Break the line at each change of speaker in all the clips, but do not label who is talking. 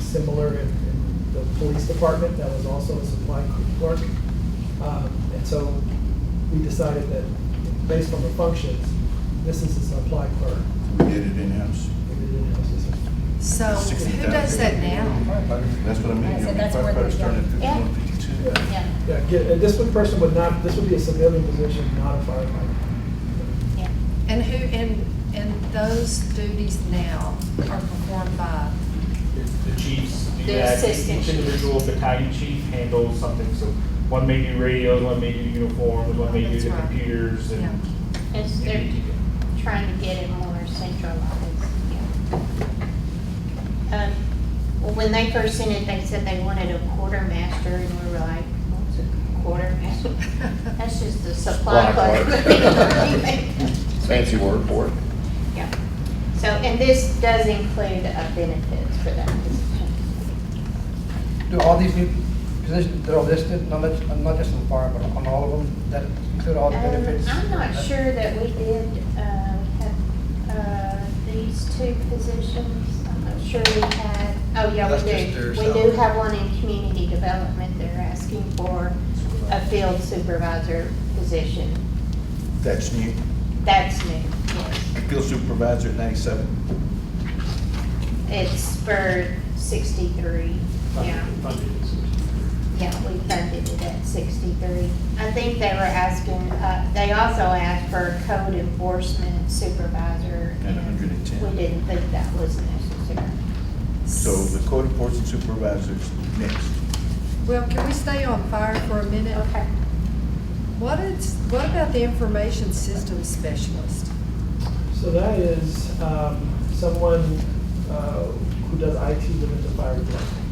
similar in in the police department, that was also a supply clerk. Um, And so we decided that, based on the functions, this is a supply clerk.
We did it in-house.
We did it in-house, yes, sir.
So Oh, who does that now?
That's what I mean.
Right,
I
so
mean,
that's where
firefighters
they
turn
go.
at fifty-one, fifty-two.
Yeah.
Yeah, get- and this one person would not, this would be a civilian position, not a firefighter.
Yeah.
And who, and, and those duties now are performed by,
The the chiefs do
The
that, each
assistant chief.
individual battalion chief handles something, so one may do radios, one may do uniforms, one may do
That's
the
right.
computers
yeah.
and.
It's, they're trying to get it more centralized, yeah. Um, well, When they first sent it, they said they wanted a quartermaster, and we were like, what's a quartermaster? That's just the supply
Supply clerk.
clerk.
Fancy word for it.
Yeah. So, and this does include uh, benefits for that position.
Do all these new positions, they're all listed, not just, not just on fire, but on all of them, that include all the
Um,
benefits? Uh,
I'm not sure that we did uh, have uh, these two positions. I'm not sure we had, oh, yeah,
That's
we
just their
do. We do
salary.
have one in community development. They're asking for a field supervisor position.
That's new.
That's new, yes.
Field supervisor at ninety-seven.
It's for 63, yeah. Yeah, we funded it at 63. I think they were asking, uh, they also asked for a code enforcement supervisor.
At 110.
We didn't think that was necessary.
So the code enforcement supervisor's next.
Well, can we stay on fire for a minute?
Okay.
What is, what about the information systems specialist?
So that is um, someone uh, who does IT within the fire department.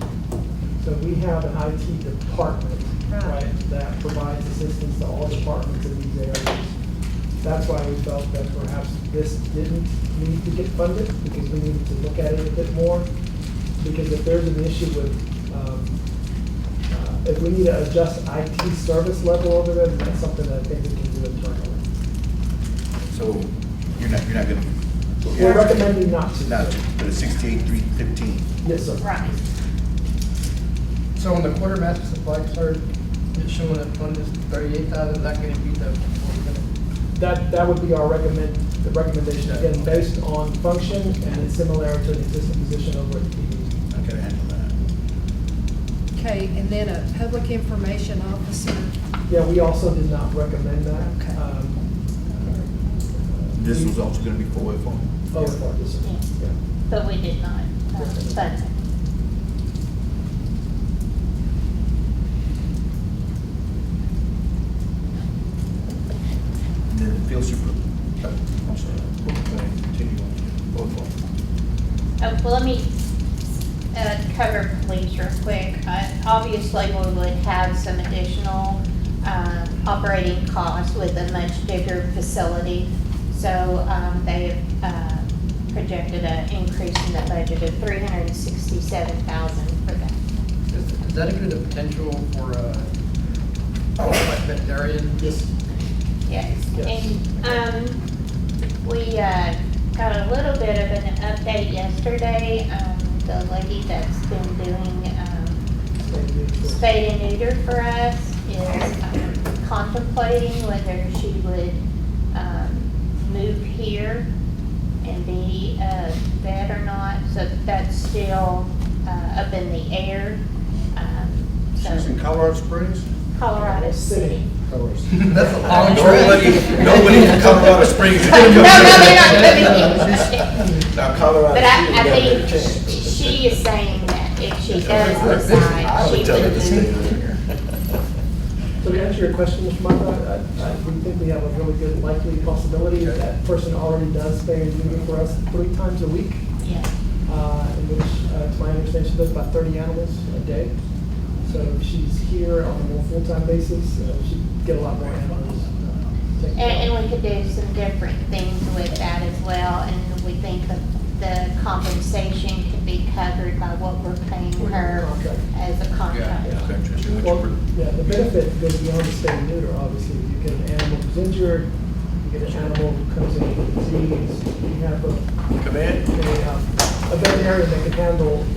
So we have an IT department,
Right.
right, that provides assistance to all departments in these areas. That's why we felt that perhaps this didn't need to get funded, because we needed to look at it a bit more. Because if there's an issue with, um, uh, if we need to adjust IT service level over there, then that's something that I think we can do internally.
So you're not, you're not gonna.
We're recommending not to.
Not, but it's sixty-eight, three fifteen.
Yes, sir.
Right.
So on the quartermaster supply clerk, it's showing that one is thirty-eight thousand, not gonna be the,
That, that would be our recommend, the recommendation, again, based on function and its similarity to the existing position over at PD.
I gotta handle that.
Okay, and then a public information officer?
Yeah, we also did not recommend that. Um, uh,
Okay.
This was also gonna be for what?
Oh, for this, yeah.
But we did not uh, fund it.
And then the field super, uh, I'm sorry, we're gonna continue on both of them.
Uh, Well, let me uh, cover police real quick. Uh, Obviously, we would have some additional um, operating costs with a much bigger facility. So um, they have uh, projected an increase in the budget of 367000 for that.
does does that include the potential for, uh, like veterinarian?
Yes,
Yes,
Yes.
and, um, we, uh, got a little bit of an update yesterday. Um, The lady that's been doing um,
thank you.
spay and neuter for us is um, contemplating whether she would um, move here and be a vet or not, so that's still uh, up in the air. Um, So
She's in Colorado Springs?
Colorado City.
That's a long
Nobody,
trip.
nobody in Colorado Springs. is
No, no,
gonna
no,
come here.
no, no, no.
Now Colorado.
But I, I
Springs, we
think
got a chance.
she is saying that if she does decide,
I
she
would tell her to stay
would
over
move.
here.
So to answer your question, Mr. Mata, I, I, we think we have a really good likely possibility that that person already does spay and neuter for us three times a week,
Yeah.
uh, in which, uh, to my understanding, she does about thirty animals a day. So if she's here on a more full-time basis, uh, she'd get a lot more animals. uh, taken care of.
And, and we could do some different things with that as well, and we think that the compensation could be covered by what we're paying her
Contract.
as a
Yeah,
contract.
yeah, okay, interesting. What you
Well,
pro-
yeah, the benefit goes beyond the spay and neuter, obviously. You get an animal who's injured, you get an animal who comes in with disease, you have a,
Come in.
a uh, a veterinarian that can handle